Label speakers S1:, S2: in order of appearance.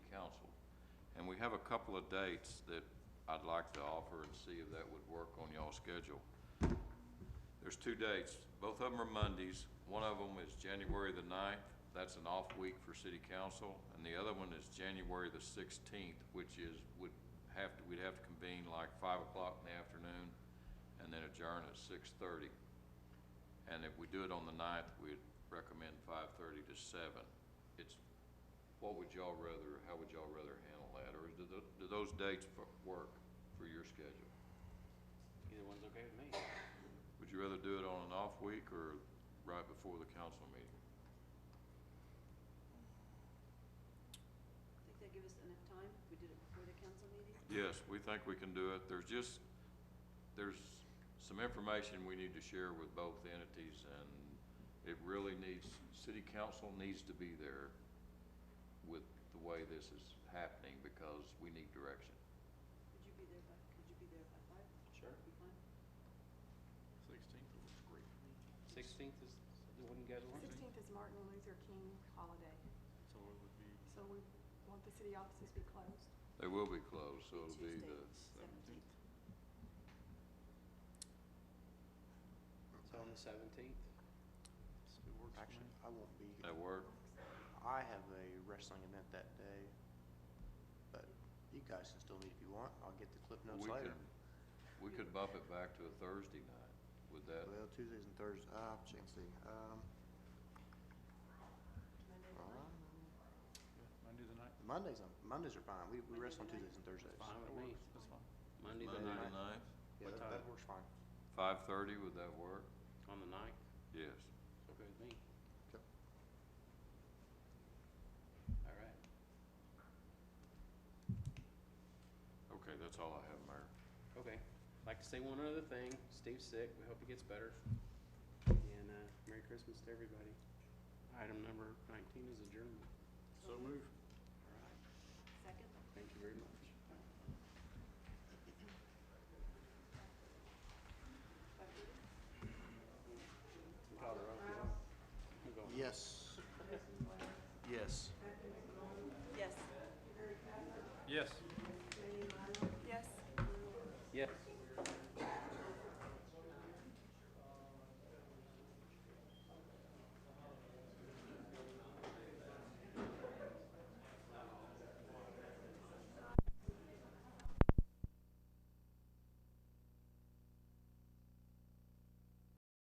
S1: have a couple of dates that I'd like to offer and see if that would work on y'all's schedule. There's two dates, both of them are Mondays. One of them is January the ninth, that's an off week for city council, and the other one is January the sixteenth, which is, would have to, we'd have to convene like five o'clock in the afternoon and then adjourn at six thirty. And if we do it on the ninth, we'd recommend five thirty to seven. It's, what would y'all rather, how would y'all rather handle that, or do, tho- do those dates fo- work for your schedule?
S2: Either one's okay with me.
S1: Would you rather do it on an off week or right before the council meeting?
S3: Think that give us enough time if we did it before the council meeting?
S1: Yes, we think we can do it. There's just, there's some information we need to share with both entities, and it really needs, city council needs to be there with the way this is happening, because we need direction.
S3: Could you be there by, could you be there by five?
S2: Sure.
S3: Be fine?
S1: Sixteenth looks great.
S2: Sixteenth is, the one you guys want?
S4: Sixteenth is Martin Luther King holiday,
S2: So it would be.
S4: so we want the city offices to be closed.
S1: They will be closed, so it'll be the,
S3: Seventeenth.
S2: So on the seventeenth?
S5: Actually, I won't be here.
S1: that work?
S5: I have a wrestling event that day, but you guys can still meet if you want. I'll get the clip notes
S1: We
S5: later.
S1: could- We could bump it back to a Thursday night. Would that,
S5: Well, Tuesdays and Thursdays, uh, change the, um,
S3: Monday,
S5: uh,
S3: fine.
S6: Monday the ninth,
S5: Mondays, I'm- Mondays are fine. We, we
S3: Monday
S5: wrestle on
S3: the ninth.
S5: Tuesdays and Thursdays.
S2: Fine with me.
S6: that's fine.
S2: Monday the
S1: Monday the
S2: ninth,
S1: ninth,
S5: Yeah,
S2: What
S5: that, that
S2: time?
S5: works fine.
S1: five thirty, would that work?
S2: on the ninth,
S1: Yes.
S2: it's okay with me.
S5: Okay.
S2: All right.
S1: Okay, that's all I have, Mayor.
S2: Okay, I'd like to say one other thing, Steve's sick, we hope he gets better. And, uh, Merry Christmas to everybody. Item number nineteen is adjournment.
S3: So
S2: move. All right,
S3: Second?
S2: thank you very much.
S3: Five thirty?
S2: Call her off, yeah. We'll go.
S5: Yes. Yes.
S6: Yes.
S3: Yes. Yes.
S2: Yes.